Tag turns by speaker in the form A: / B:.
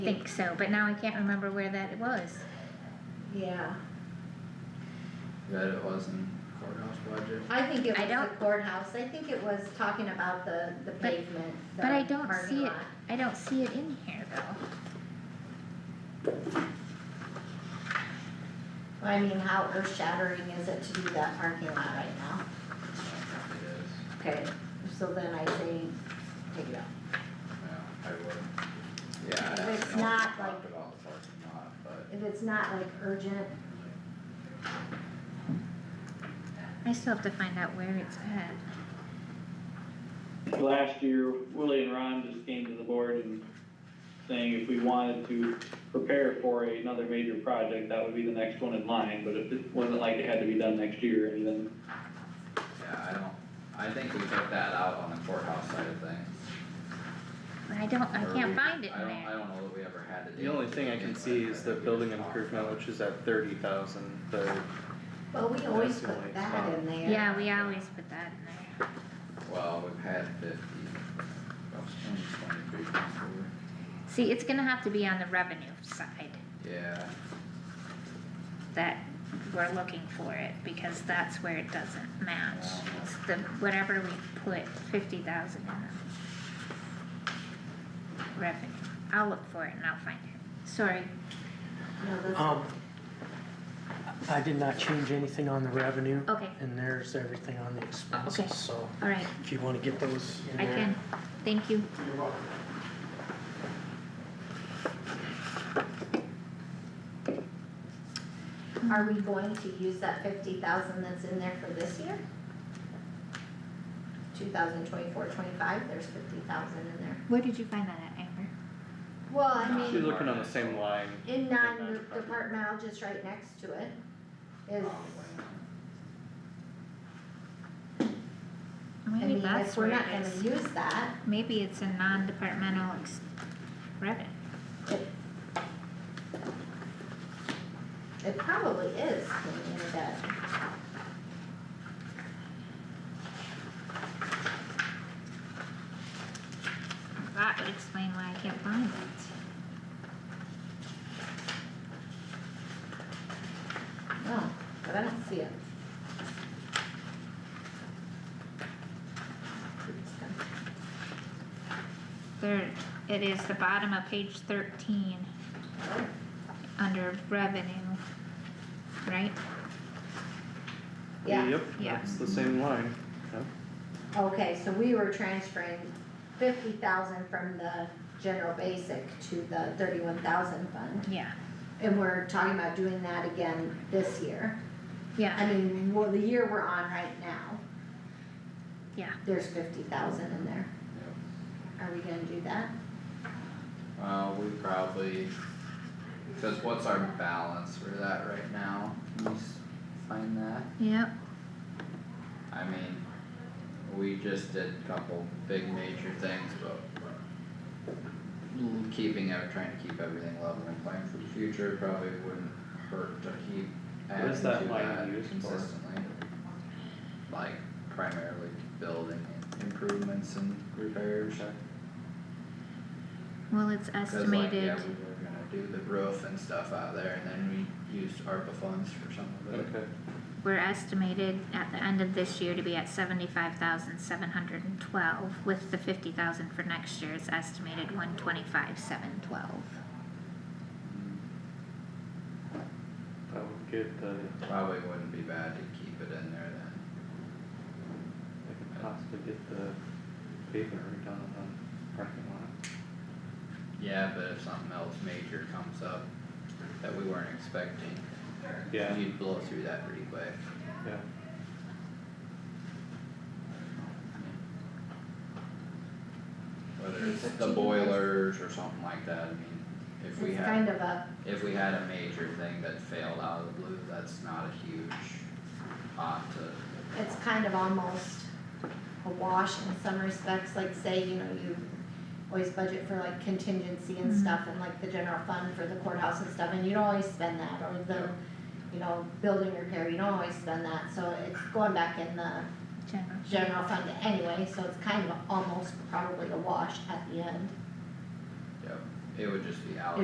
A: think so, but now I can't remember where that was.
B: Yeah,
C: that it wasn't courthouse budget.
B: I think it
A: I
B: was the
A: don't-
B: courthouse, I think it was talking about the, the
A: But-
B: pavement, the
A: But I don't
B: parking
A: see it,
B: lot.
A: I don't see it in here though.
B: I mean, how earth shattering is it to do that parking lot right now?
C: It is,
B: Okay, so then I say, take it out.
C: yeah, I would. Yeah, I
B: But
C: don't
B: it's
C: know if we
B: not
C: talked
B: like-
C: about the parking lot, but
B: If it's not like urgent,
A: I still have to find out where it's at.
D: last year, Willie and Ron just came to the board and saying if we wanted to prepare for another major project, that would be the next one in line, but if it wasn't like it had to be done next year or anything.
C: yeah, I don't, I think we took that out on the courthouse side of things.
A: But I don't, I
C: or
A: can't
C: we-
A: find it in
C: I don't,
A: there.
C: I don't know that we ever had to.
E: The only thing I can see is the building improvement, which is at thirty thousand, the,
B: well, we always
E: That's the only
B: put that
E: spot.
B: in there.
A: Yeah, we always put that in there.
C: Well, we've had fifty, that was 2023, 24.
A: See, it's gonna have to be on the revenue side
C: yeah,
A: that we're looking for it, because that's where it doesn't match. It's the, whatever we put fifty thousand in the revenue. I'll look for it and I'll find it. Sorry,
B: No, this-
F: Um, I did not change anything on the revenue,
A: okay,
F: and there's everything on the
A: Okay.
F: expenses, so
A: alright,
F: if you wanna get those in
A: I
F: there.
A: can, thank you. Um.
B: Are we going to use that fifty thousand that's in there for this year? Two thousand twenty-four, twenty-five, there's fifty thousand in there.
A: Where did you find that at, Amber?
B: Well, I
C: Nah.
B: mean.
E: she's looking on the same line.
B: In
E: They're not
B: non-departmental, just right next to it, is,
A: Oh.
B: I
A: Maybe
B: mean,
A: that's
B: if we're
A: where
B: not
A: it
B: gonna
A: is.
B: use that,
A: Maybe it's a non-departmental ex- revenue.
B: it probably is in in debt.
A: That would explain why I can't find it.
B: No,
A: Oh.
B: but I don't see it.
A: There, it is the bottom of page thirteen, under revenue, right?
B: Yeah,
E: Yep,
A: Yeah.
E: that's the same line,
B: okay, so we were transferring fifty thousand from the general basic to the thirty-one thousand fund.
A: Yeah,
B: And we're talking about doing that again this year.
A: yeah,
B: I mean, well, the year we're on right now,
A: yeah.
B: there's fifty thousand in there. Are we gonna do that?
C: Uh, we probably, cause what's our balance for that right now? Can you s- find that?
A: Yep,
C: I mean, we just did a couple big major things, but keeping out, trying to keep everything level and playing for the future probably wouldn't hurt to keep
E: What
C: adding
E: is
C: to
E: that line
C: that
E: used for?
C: consistently. Like primarily building improvements and repairs.
A: well, it's
C: Cause like,
A: estimated,
C: yeah, we were gonna do the roof and stuff out there and then we used ARPA funds for some of it.
E: okay.
A: we're estimated at the end of this year to be at seventy-five thousand seven hundred and twelve, with the fifty thousand for next year, it's estimated one twenty-five seven twelve.
E: That would get the,
C: Probably wouldn't be bad to keep it in there then.
E: I could possibly get the pavement redone on the parking lot.
C: Yeah, but if something else major comes up that we weren't expecting,
E: Yeah,
C: you'd blow through that pretty quick.
E: yeah,
C: Whether it's
B: Like
C: the
B: fifteen
C: boilers or something like that, I mean, if we
B: It's kind
C: had,
B: of a,
C: if we had a major thing that failed out of the blue, that's not a huge pot to,
B: it's kind of almost a wash in some respects, like say, you know, you always budget for like contingency and
A: Mhm.
B: stuff and like the general fund for the courthouse and stuff, and you don't always spend that, or the,
C: Yeah.
B: you know, building repair, you don't always spend that, so it's going back in the
A: General.
B: general fund anyway, so it's kind of almost probably a wash at the end.
C: yep. it would just be allocated.